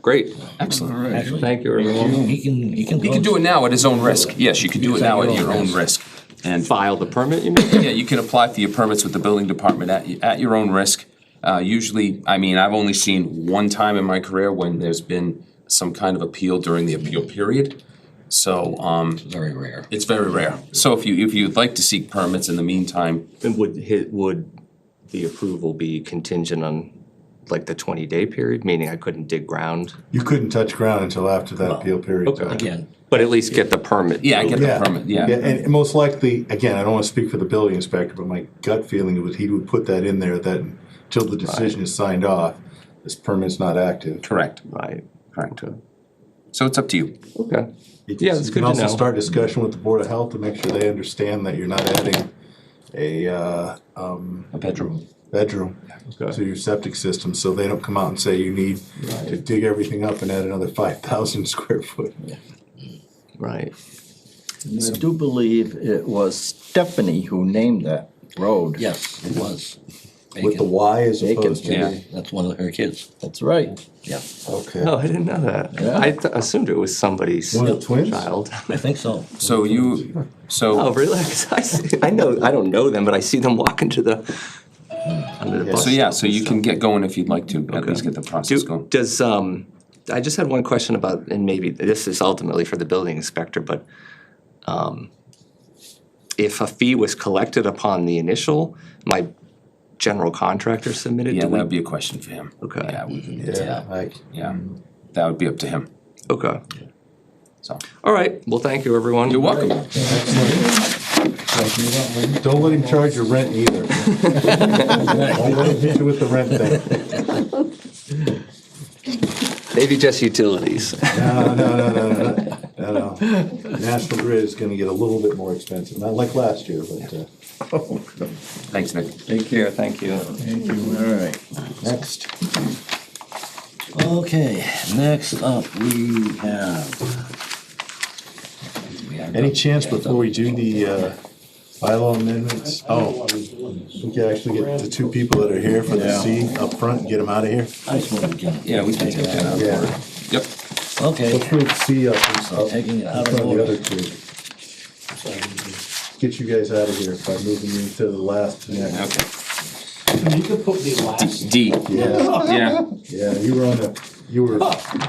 Great, Excellent. thank you everyone. He can, he can. You can do it now at his own risk. Yes, you can do it now at your own risk. And File the permit, you mean? Yeah, you can apply for your permits with the building department at, y- at your own risk. Uh, usually, I mean, I've only seen one time in my career when there's been some kind of appeal during the appeal period. So, um, Very rare. it's very rare. So if you, if you'd like to seek permits in the meantime, And would hit, would the approval be contingent on like the twenty day period, meaning I couldn't dig ground? Uh, You couldn't touch ground until after that appeal period. Again, But at least get the permit. yeah, get the Yeah. permit, Yeah, yeah. and most likely, again, I don't wanna speak for the building inspector, but my gut feeling was he would put that in there that until the decision is signed off, this permit's not active. Correct. Right, Correct. So it's up to you. okay. Yeah, You can- that's you can good to also know. start discussion with the Board of Health to make sure they understand that you're not adding a, uh, A bedroom. bedroom to your septic system, so they don't come out and say you need to dig everything up and add another five thousand square foot. Right, I do believe it was Stephanie who named that road. yes, it was. With the Y as Bacon. opposed to, Yeah. the- That's one of her kids, That's right. yeah. okay. no, I didn't know that, I th- assumed it was somebody's One of the twins? child. I think so. So you, so. Oh, really? 'Cause I see, I know, I don't know them, but I see them walking to the, under the bus. So yeah, so you can get going if you'd like to, at least get the process Do, going. does, um, I just had one question about, and maybe this is ultimately for the building inspector, but, um, if a fee was collected upon the initial, my general contractor submitted, Yeah, do we? that'd be a question for him. Okay. Yeah, we can, Yeah, like, yeah, Um, that would be up to him, Okay, so. all right, well, thank you, everyone. You're welcome. don't let him charge your rent either. Don't let him hit you with the rent thing. Maybe just utilities. No, no, no, no, no, no, no, no. National Grid is gonna get a little bit more expensive, not like last year, but, uh, Thanks, Nick. Take care, thank you. Thank you. All right. next. Okay, next up, we have. Any chance before we do the, uh, bylaw amendments? Oh, we could actually get the two people that are here for the Yeah. C up front and get them out of here? I swear to God. Yeah, we can take that out. Yeah. Yep, Okay, Let's move C up and I'm taking it out of in front of the order. other two. Get you guys out of here by moving you to the last. Yeah, okay. You could put the last. D, yeah, yeah, yeah, you were on a, you were,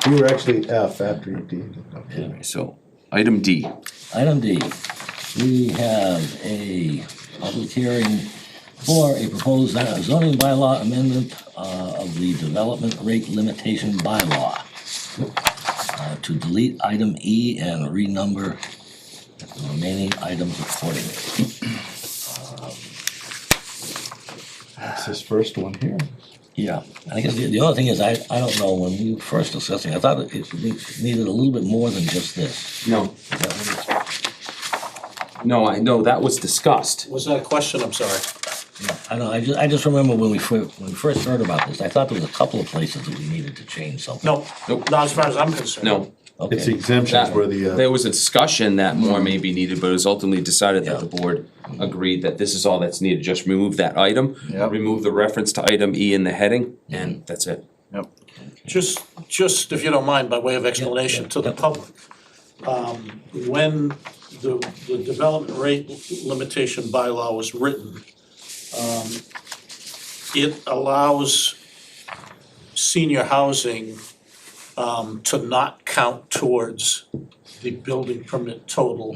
you were actually F after you D. Okay. so, item D. Item D, we have a public hearing for a proposed zoning bylaw amendment uh, of the development rate limitation bylaw uh, to delete item E and renumber the remaining items accordingly. That's this first one here. Yeah, I guess the the other thing is, I, I don't know, when we were first discussing, I thought it- it needed a little bit more than just this. No. No, I, no, that was discussed. Was that a question? I'm sorry. I don't, I just, I just remember when we, fir- when we first heard about this, I thought there was a couple of places that we needed to change something. No, Nope. not as far as I'm concerned. No, It's Okay, exemptions that, where the, there uh, was a discussion that more may be needed, but it was ultimately decided that the board agreed that this is all that's needed, just remove that item, Yep. remove the reference to item E in the heading, Mm-hmm. and that's it. Yep. Just, just if you don't mind, by way of explanation to the public. um, When the, the development rate limitation bylaw was written, um, it allows senior housing um, to not count towards the building permit total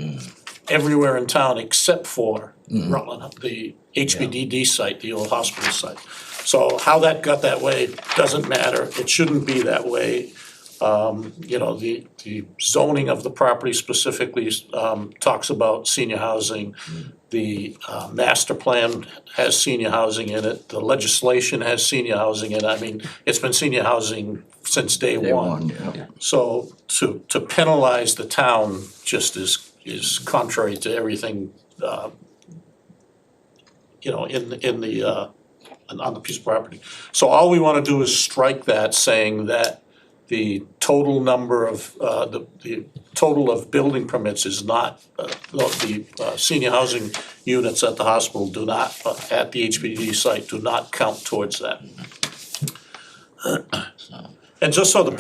everywhere in town except for Rutland, the HBDD site, the old hospital site. So how that got that way doesn't matter, it shouldn't be that way. Um, you know, the, the zoning of the property specifically, um, talks about senior housing. The, uh, master plan has senior housing in it, the legislation has senior housing in it, I mean, it's been senior housing since day one. So to, to penalize the town just is, is contrary to everything, uh, you know, in, in the, uh, on- on the piece of property. So all we wanna do is strike that, saying that the total number of, uh, the, the total of building permits is not, uh, the, uh, senior housing units at the hospital do not, uh, at the HPD site do not count towards that. And just so the